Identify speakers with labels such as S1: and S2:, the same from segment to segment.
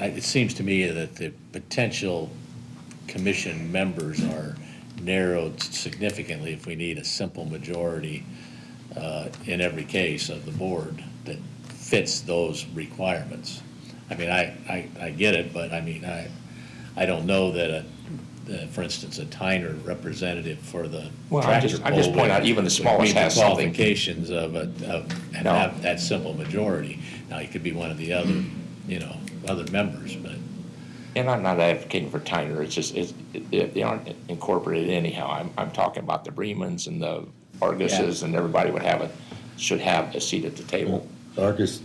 S1: I- it seems to me that the potential commission members are narrowed significantly if we need a simple majority uh, in every case of the board that fits those requirements. I mean, I, I, I get it, but I mean, I, I don't know that a, that, for instance, a Tyner representative for the
S2: Well, I'm just-
S1: tractor
S2: I'm just
S1: pull
S2: pointing out
S1: would-
S2: even the
S1: would
S2: smallest
S1: meet the
S2: has something.
S1: Qualifications of a, of, and
S2: No.
S1: have that simple majority. Now, it could be one of the other, you know, other members, but.
S2: And I'm not advocating for Tyner, it's just, it's, it- it- they aren't incorporated anyhow. I'm, I'm talking about the Bremans and the Arguses and everybody would have a, should have a seat at the table.
S3: Artist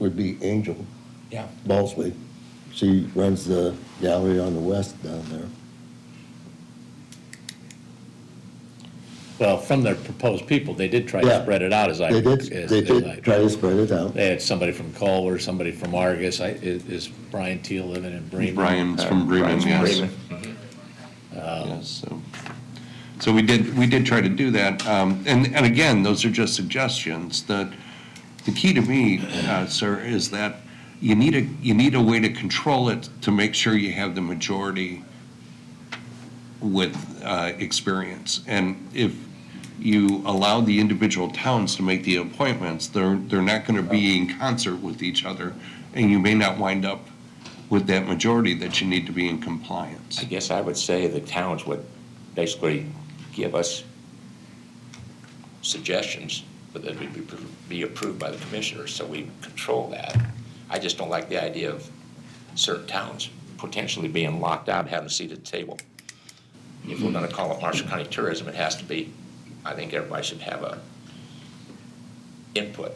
S3: would be Angel
S2: Yeah.
S3: Ballsley. She runs the gallery on the west down there.
S1: Well, from their proposed people, they did try
S3: Yeah.
S1: to spread it out, as I.
S3: They did,
S1: as-
S3: they
S1: as I-
S3: did try to spread it out.
S1: They had somebody from Culver, somebody from Argus. I, is is Brian Teal living in Bremen?
S4: Brian's from Bremen,
S2: uh, Brian's from
S4: yes.
S2: Bremen.
S4: Yes, so, so we did, we did try to do that. Um, And, and again, those are just suggestions. The, the key to me, uh, sir, is that you need a, you need a way to control it to make sure you have the majority with uh, experience. And if you allow the individual towns to make the appointments, they're, they're not going to be in concert with each other, and you may not wind up with that majority that you need to be in compliance.
S2: I guess I would say the towns would basically give us suggestions, but that would be, be approved by the commissioners, so we control that. I just don't like the idea of certain towns potentially being locked out, having a seat at the table. If we're gonna call it Marshall County Tourism, it has to be, I think everybody should have a input.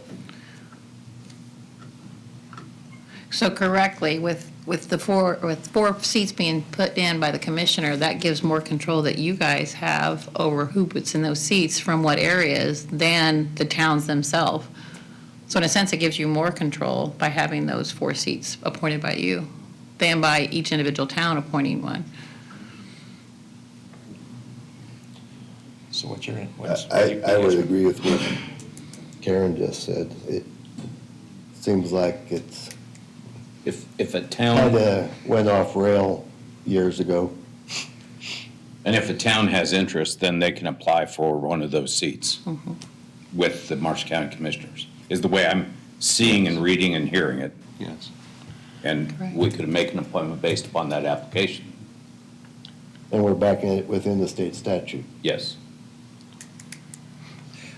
S5: So correctly, with, with the four, with four seats being put in by the commissioner, that gives more control that you guys have over who puts in those seats from what areas than the towns themselves. So in a sense, it gives you more control by having those four seats appointed by you than by each individual town appointing one.
S2: So what's your, what's?
S3: I, I would agree with what Karen just said. It seems like it's
S6: If, if a town,
S3: kind of went off rail years ago.
S6: and if a town has interest, then they can apply for one of those seats
S3: Mm-hmm.
S6: with the Marshall County Commissioners, is the way I'm seeing and reading and hearing it.
S4: Yes.
S6: And we could make an appointment based upon that application,
S3: And we're back in it within the state statute.
S6: yes.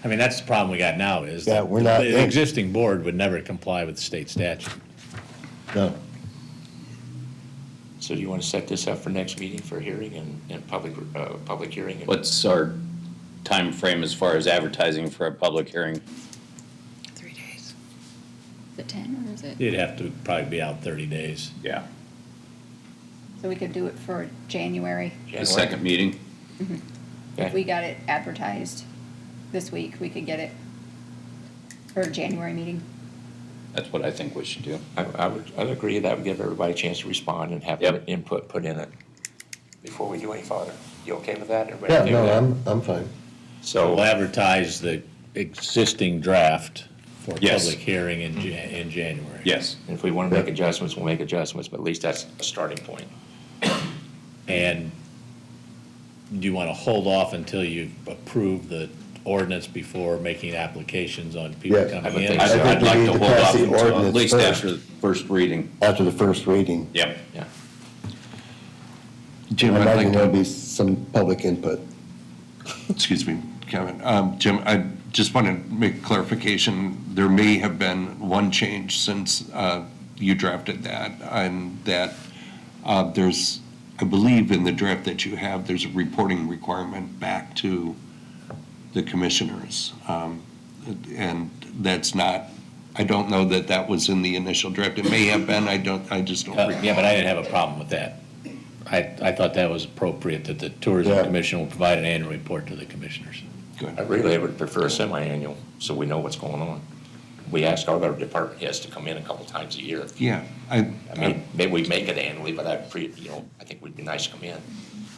S1: I mean, that's the problem we got now is.
S3: Yeah,
S1: that
S3: we're not-
S1: The existing board would never comply with state statute.
S3: No,
S2: So do you wanna set this up for next meeting for hearing and, and public, uh, public hearing? and-
S6: What's our time frame as far as advertising for a public hearing?
S5: Three days.
S7: The ten, or is it?
S1: It'd have to probably be out thirty days.
S6: Yeah,
S7: So we could do it for January.
S6: the
S2: January?
S6: second meeting,
S7: If we got it advertised this week, we could get it for a January meeting.
S6: that's what I think we should do.
S2: I, I would, I'd agree that would give everybody a chance to respond and have their
S6: Yep.
S2: input put in it before we do any further. You okay with that? Everybody
S3: yeah,
S2: okay
S3: no,
S2: with that?
S3: I'm, I'm fine.
S1: We'll
S2: So,
S1: advertise the existing draft for
S6: Yes.
S1: public hearing in Jan, in January.
S6: Yes,
S2: if we want to make adjustments, we'll make adjustments, but at least that's a starting point.
S1: And do you want to hold off until you approve the ordinance before making applications on people
S3: Yes. I
S1: coming
S2: would
S1: in?
S2: think
S6: I'd
S2: so.
S6: I'd like
S3: we
S6: to
S3: need to
S6: hold
S3: pass
S6: off
S3: the
S6: until at
S3: ordinance
S6: least
S3: first.
S6: after the first reading,
S3: After the first reading.
S6: yep.
S2: Yeah.
S4: Jim,
S3: I
S4: I'd
S3: imagine
S4: like
S3: there'll
S4: to,
S3: be some public input.
S4: excuse me, Kevin. Um, Jim, I just want to make clarification. There may have been one change since uh, you drafted that, and that uh, there's, I believe in the draft that you have, there's a reporting requirement back to the commissioners. Um, And that's not, I don't know that that was in the initial draft. It may have been, I don't, I just don't
S1: Uh,
S4: recall.
S1: Yeah, but I didn't have a problem with that. I, I thought that was appropriate, that the Tourism
S3: Yeah.
S1: Commission will provide an annual report to the commissioners.
S4: Good.
S2: I really would prefer a semi-annual, so we know what's going on. We ask all of our department heads to come in a couple times a year.
S4: Yeah, I,
S2: I mean, maybe we make it annually, but I, pre, you know, I think would be nice to come in.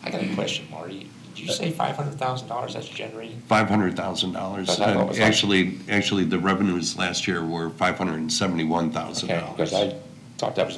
S2: I got a question, Marty. Did you say five hundred thousand dollars that's generated?
S4: five hundred thousand dollars.
S2: That's not what was-
S4: Actually, actually, the revenues last year were five hundred and seventy-one thousand
S2: Okay,
S4: dollars.
S2: because I thought that was